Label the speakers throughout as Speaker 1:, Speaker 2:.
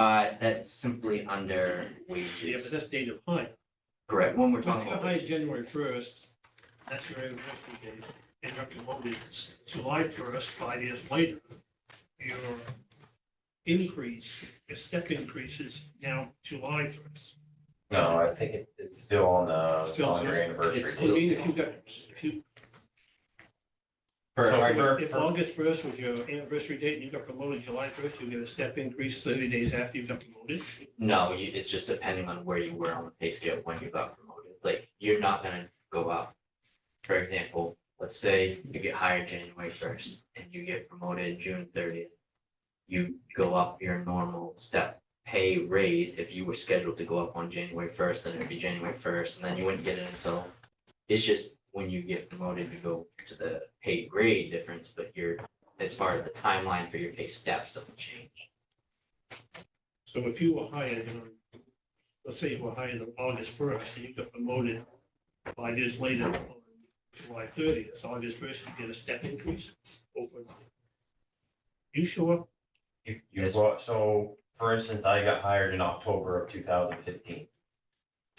Speaker 1: that, Uh, that's simply under
Speaker 2: Yeah, but
Speaker 1: wages,
Speaker 2: that's date of hire.
Speaker 1: correct, when we're talking about
Speaker 2: Hire is
Speaker 1: wages.
Speaker 2: January first, that's your anniversary date, and you're promoted July first, five years later. Your increase, your step increase is now July first.
Speaker 3: No, I think it, it's still on the,
Speaker 2: Still
Speaker 3: on your
Speaker 2: just-
Speaker 3: anniversary.
Speaker 1: it's
Speaker 2: I
Speaker 1: still-
Speaker 3: date.
Speaker 2: mean, if you got, if you,
Speaker 3: So
Speaker 4: Sorry,
Speaker 3: for-
Speaker 2: if
Speaker 3: for-
Speaker 2: August first was your anniversary date, and you got promoted July first, you get a step increase thirty days after you got promoted.
Speaker 1: No, you, it's just depending on where you were on the pay scale when you got promoted, like, you're not gonna go up. For example, let's say you get hired January first and you get promoted June thirtieth. You go up your normal step pay raise, if you were scheduled to go up on January first, then it'd be January first, and then you wouldn't get it until. It's just when you get promoted, you go to the pay grade difference, but your as far as the timeline for your pay steps doesn't change.
Speaker 2: So if you were hired, on let's say you were hired on August first, and you got promoted five years later, on July thirtieth, August first, you get a step increase over. You show up,
Speaker 3: You, you brought, so for instance, I got hired in October of two thousand fifteen.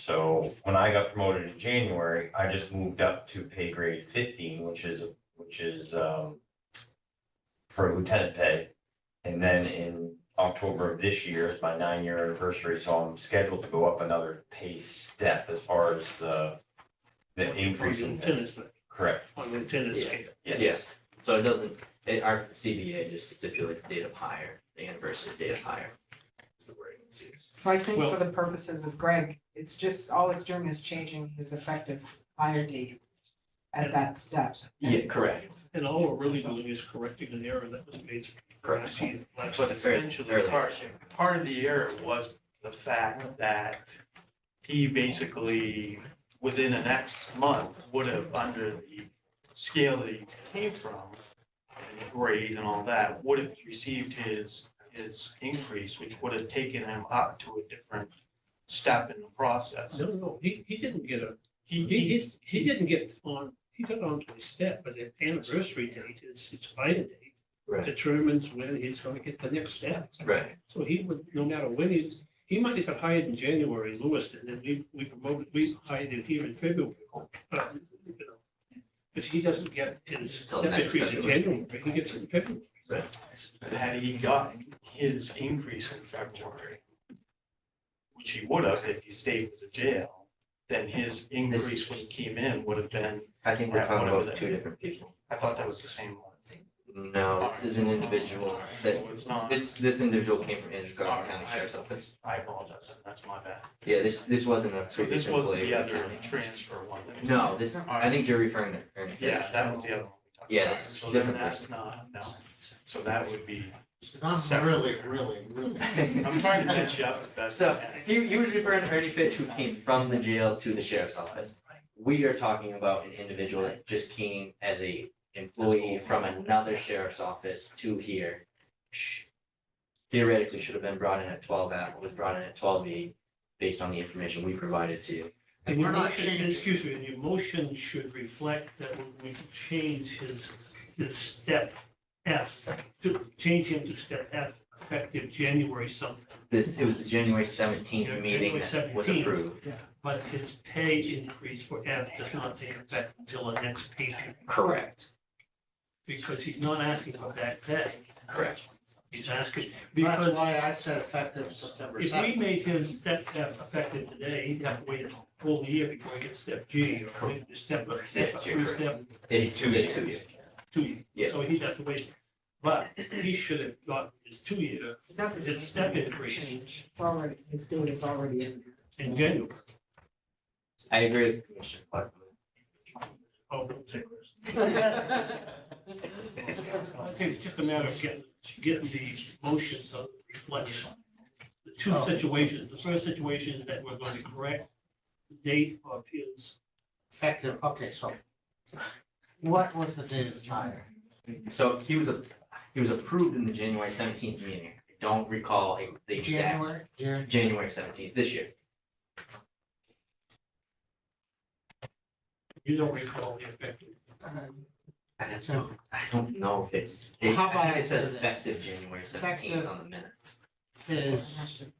Speaker 3: So when I got promoted in January, I just moved up to pay grade fifteen, which is, which is, um, for lieutenant pay. And then in October of this year is my nine-year anniversary, so I'm scheduled to go up another pay step as far as the, the
Speaker 2: on
Speaker 3: increase
Speaker 2: the
Speaker 3: in pay.
Speaker 2: attendance, but
Speaker 3: Correct,
Speaker 2: on the attendance
Speaker 1: Yeah.
Speaker 2: scale.
Speaker 3: yes.
Speaker 1: Yeah. So it doesn't, it, our CBA just stipulates date of hire, the anniversary date of hire. Is the word it's used.
Speaker 5: So I think
Speaker 2: Well-
Speaker 5: for the purposes of Greg, it's just, all it's doing is changing his effective hire date at that step.
Speaker 1: Yeah, correct.
Speaker 2: And all we're really doing is correcting an error that was made last year. last
Speaker 1: But it's very-
Speaker 6: Essentially,
Speaker 1: early.
Speaker 6: part, part of the error was the fact that he basically, within the next month, would have, under the scale that he came from, and the grade and all that, would have received his, his increase, which would have taken him up to a different step in the process.
Speaker 2: No, no, he, he didn't get a,
Speaker 6: He,
Speaker 2: he,
Speaker 6: he,
Speaker 2: he, he didn't get on, he got onto his step, but the anniversary date is, his hire date
Speaker 1: Right,
Speaker 2: determines when he's gonna get the next step.
Speaker 1: right,
Speaker 2: So he would, no matter when he, he might have got hired in January, Lewiston, and we, we promoted, we hired him here in February. But, you know, If he doesn't get his
Speaker 1: Till
Speaker 2: step
Speaker 1: next
Speaker 2: increase in
Speaker 1: February.
Speaker 2: January, he gets it in February.
Speaker 6: had he gotten his increase in February, which he would have if he stayed with the jail, then his increase when he came in would have been,
Speaker 1: I think we're
Speaker 6: Right,
Speaker 1: talking
Speaker 6: whatever
Speaker 1: about
Speaker 6: that-
Speaker 1: two different people.
Speaker 6: I thought that was the same one.
Speaker 1: No, Oh, this is an individual, this,
Speaker 6: So it's not.
Speaker 1: this, this individual came from Andrew
Speaker 6: Alright,
Speaker 1: County
Speaker 6: I-
Speaker 1: Sheriff's Office.
Speaker 6: I apologize, that's my bad.
Speaker 1: Yeah, this, this wasn't a
Speaker 6: So
Speaker 1: previous
Speaker 6: this wasn't
Speaker 1: employee
Speaker 6: the
Speaker 1: of the
Speaker 6: other
Speaker 1: county.
Speaker 6: transfer one. that-
Speaker 1: No, this, I think you're referring to Ernie Fish.
Speaker 6: Yeah, that was the other one. we talked
Speaker 1: Yeah,
Speaker 6: about.
Speaker 1: that's
Speaker 6: So then
Speaker 1: different
Speaker 6: that's
Speaker 1: person.
Speaker 6: not, no, so that would be,
Speaker 4: Because I'm really, really, really.
Speaker 6: I'm trying to catch you up with that.
Speaker 1: So he, he was referring to Ernie Fitch who came from the jail to the sheriff's office. We are talking about an individual that just came as a employee from another sheriff's office to here. Sh- Theoretically should have been brought in at twelve hour, was brought in at twelve E based on the information we provided to you.
Speaker 2: And your
Speaker 4: We're not
Speaker 2: motion,
Speaker 4: changing.
Speaker 2: excuse me, and your motion should reflect that we change his, his step F, to change him to step F effective January something.
Speaker 1: This, it was the January seventeenth
Speaker 2: Yeah,
Speaker 1: meeting that
Speaker 2: January
Speaker 1: was
Speaker 2: 17th.
Speaker 1: approved,
Speaker 2: But his pay increase for F does not take effect until the next pay period,
Speaker 1: correct,
Speaker 2: because he's not asking for that pay.
Speaker 1: correct.
Speaker 2: He's asking,
Speaker 4: That's
Speaker 2: because
Speaker 4: why I said effective September
Speaker 2: if we
Speaker 4: second.
Speaker 2: made his step F effective today, he'd have to wait a full year before he gets step G, or maybe the step, or step,
Speaker 1: Yeah,
Speaker 2: or
Speaker 1: you're
Speaker 2: three step,
Speaker 1: It's
Speaker 3: Two
Speaker 1: two to
Speaker 3: years.
Speaker 1: two.
Speaker 2: two years.
Speaker 1: Yeah.
Speaker 2: So he'd have to wait, but he should have got his two year,
Speaker 5: It doesn't.
Speaker 2: his step increase
Speaker 5: It's already, his date is already in. there.
Speaker 2: in January.
Speaker 1: I agree with Commissioner Clark.
Speaker 2: Oh, I think it's just a matter of getting, getting the motions of reflection. The two situations, the first situation is that we're going to correct the date of his,
Speaker 4: Effective, okay, so what was the date of his hire?
Speaker 1: So he was, a he was approved in the January seventeenth meeting. I don't recall a- the exact,
Speaker 4: January, Jan-
Speaker 1: January seventeenth this year.
Speaker 2: you don't recall the effective.
Speaker 1: I don't, I don't know if it's, it-
Speaker 4: How
Speaker 1: I
Speaker 4: about
Speaker 1: think it says
Speaker 4: this?
Speaker 1: effective January seventeenth
Speaker 4: Effective-
Speaker 1: on the minutes.
Speaker 4: his